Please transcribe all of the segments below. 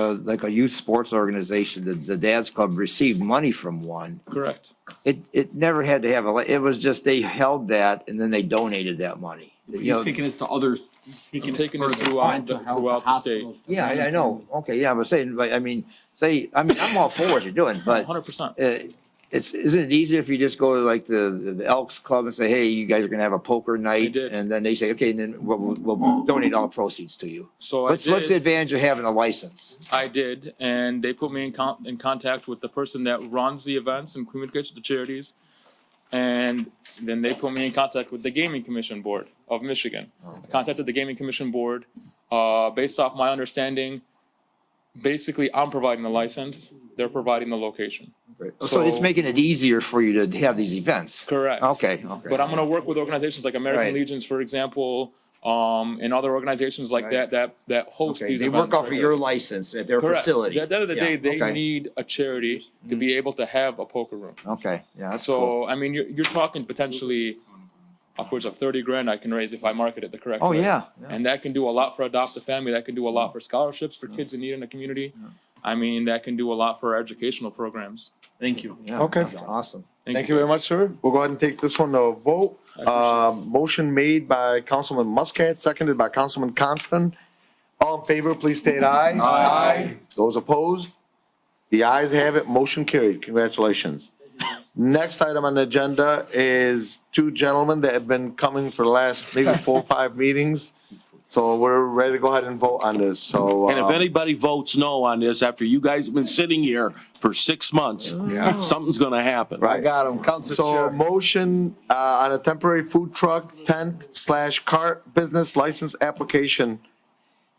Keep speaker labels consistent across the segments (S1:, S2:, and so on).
S1: uh, like a youth sports organization, the, the dad's club received money from one.
S2: Correct.
S1: It, it never had to have a, it was just they held that and then they donated that money. You know,
S3: He's taking us to others, he's taking
S2: I'm
S3: us
S2: taking us
S3: further,
S2: throughout
S3: on to
S2: the-
S3: help
S2: throughout the state.
S3: hospitals, to
S1: Yeah, I, I
S3: families.
S1: know. Okay, yeah, I'm saying, but I mean, say, I mean, I'm all for what you're doing, but
S2: Hundred percent.
S1: uh, it's, isn't it easier if you just go to like the, the Elks Club and say, hey, you guys are gonna have a poker night?
S2: did.
S1: And then they say, okay, and then we'll, we'll we'll donate all the proceeds to you.
S2: So I
S1: What's, what's the
S2: did,
S1: advantage of having a license?
S2: I did, and they put me in con- in contact with the person that runs the events and communicates with the charities. And then they put me in contact with the Gaming Commission Board of Michigan. I contacted the Gaming Commission Board, uh, based off my understanding, basically I'm providing the license, they're providing the location.
S1: So it's
S2: So-
S1: making it easier for you to have these events.
S2: Correct.
S1: Okay, okay.
S2: But I'm gonna work with organizations like American
S1: Right.
S2: Legions, for example, um, and other organizations like
S1: Right.
S2: that, that, that host
S1: Okay,
S2: these
S1: they
S2: events.
S1: work off of
S2: right
S1: your
S2: here.
S1: license at their
S2: Correct.
S1: facility.
S2: At the end of the
S1: Yeah,
S2: day, they
S1: okay,
S2: need a charity to be able to have a poker room.
S1: Okay, yeah, that's cool.
S2: So, I mean, you're, you're talking potentially upwards of thirty grand I can raise if I market it the correct way.
S1: Oh, yeah. Mm-hmm. yeah.
S2: And that can do a lot for adopt a family, that can do a lot for scholarships for kids in need in the community. I mean, that can do a lot for our educational programs.
S3: Thank you.
S1: Yeah,
S4: Okay.
S1: that's Awesome.
S4: Thank you very
S2: guys.
S4: much, sir. We'll go ahead and take this one to a vote. Um, motion made by Councilman Muscat, seconded by Councilman Constant. All in favor, please state aye. Aye. Those opposed? The ayes have it, motion carried. Congratulations. Next item on the agenda is two gentlemen that have been coming for the last maybe four, or five meetings. So we're ready to go ahead and vote on this, so.
S5: And if
S4: uh,
S5: anybody votes no on this, after you guys have been sitting here for six months, something's gonna happen.
S4: Right.
S1: got him, Council
S4: So motion, uh, on a temporary food truck tent slash cart business license application,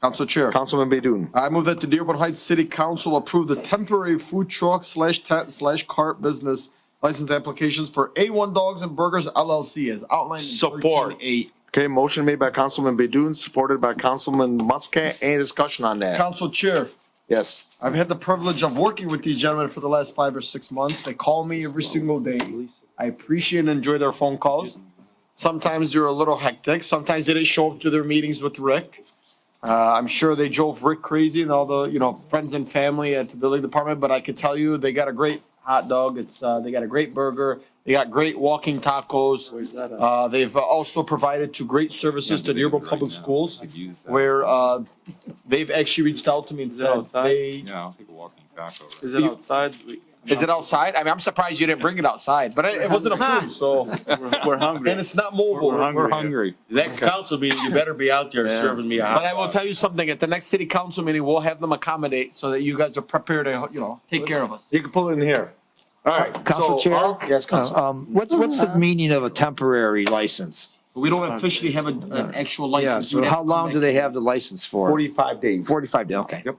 S6: Council Chair,
S4: Councilman Bedun.
S6: I move that the Dearborn Heights City Council approve the temporary food truck slash tent slash cart business license applications for A1 Dogs and Burgers LLC as outlined in
S5: Support.
S6: thirteen eight.
S4: Okay, motion made by Councilman Bedun, supported by Councilman Muscat. Any discussion on that?
S6: Council Chair,
S4: Yes.
S6: I've had the privilege of working with these gentlemen for the last five or six months. They call me every single day. I appreciate and enjoy their phone calls. Sometimes they're a little hectic. Sometimes they didn't show up to their meetings with Rick. Uh, I'm sure they drove Rick crazy and all the you know friends and family at the building department. But I could tell you they got a great hot dog. It's uh, they got a great burger. They got great walking tacos. Uh, they've also provided two great services to Dearborn Public Schools, where uh, they've actually reached out to me and said
S7: outside?
S6: they
S8: Yeah, I'll take a walking back over.
S7: Is it outside? We-
S6: Is it outside? I mean, I'm surprised you didn't bring it outside, but it, it wasn't approved, so,
S7: We're we're hungry.
S6: and it's not mobile.
S7: We're hungry.
S8: We're hungry.
S5: Next council meeting, you better be out there serving me a hot
S6: But I will tell you something, at the next city council meeting, we'll have them accommodate so that you guys are prepared to, you know, take care of us.
S4: You can pull it in here. All right.
S1: Council
S4: so,
S1: Chair?
S4: all- Yes, Council.
S1: Um, what's, what's the meaning of a temporary license?
S6: We don't officially have a- an actual
S1: Yeah,
S6: license.
S1: so how long do they have the license for?
S4: Forty-five days.
S1: Forty-five days, okay.
S4: Yep.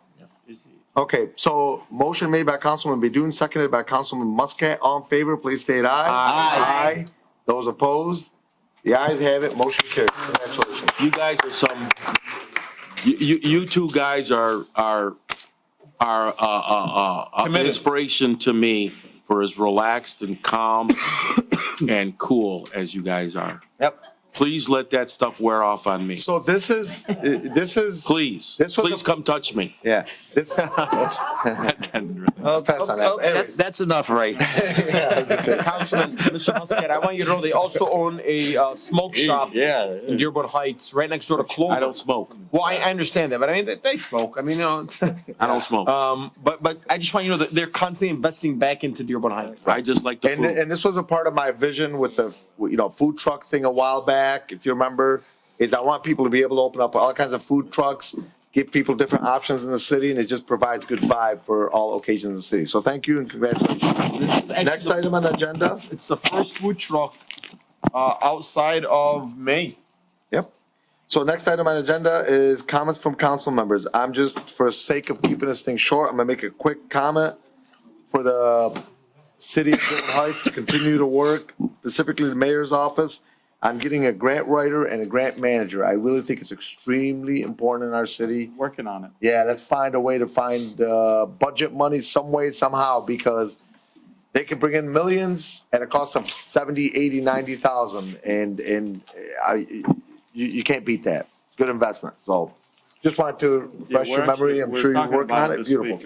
S4: Okay, so motion made by Councilman Bedun, seconded by Councilman Muscat. All in favor, please state aye. Aye. Those opposed? The ayes have it, motion carried. Congratulations.
S5: You guys are some, you, you, you two guys are, are, are, uh, uh, uh, an inspiration to me for as relaxed and calm and cool as you guys are.
S4: Yep.
S5: Please let that stuff wear off on me.
S4: So this is, this is,
S5: Please,
S4: This was a-
S5: please come touch me.
S4: yeah, this, let's pass on that. Anyways.
S1: That's enough, right?
S6: Councilman, Mr. Muscat, I want you to know they also own a, uh, smoke shop
S5: Yeah.
S6: in Dearborn Heights, right next door to
S5: I
S6: Clover.
S5: don't smoke.
S6: Well, I, I understand that, but I mean, they, they smoke, I mean, you know.
S5: I don't smoke.
S6: Um, but, but I just want you to know that they're constantly investing back into Dearborn Heights.
S5: I just like the
S4: And,
S5: food.
S4: and this was a part of my vision with the, you know, food truck thing a while back, if you remember, is I want people to be able to open up all kinds of food trucks, give people different options in the city, and it just provides good vibe for all occasions in the city. So thank you and congratulations. Next item on the agenda?
S6: It's the first food truck uh, outside of May.
S4: Yep. So next item on agenda is comments from council members. I'm just, for sake of keeping this thing short, I'm gonna make a quick comment for the city of Dearborn Heights to continue to work, specifically the mayor's office, on getting a grant writer and a grant manager. I really think it's extremely important in our city
S7: Working on it.
S4: yeah, let's find a way to find uh, budget money some way, somehow, because they can bring in millions at a cost of 70, 80, 90,000. And, and uh, I, you, you can't beat that. Good investment. So Just wanted to refresh
S7: we're
S4: your memory.
S7: actually-
S4: I'm
S7: we're
S4: sure you're
S7: talking
S4: working on
S7: about it
S4: it.
S7: this
S4: Beautiful.
S7: week.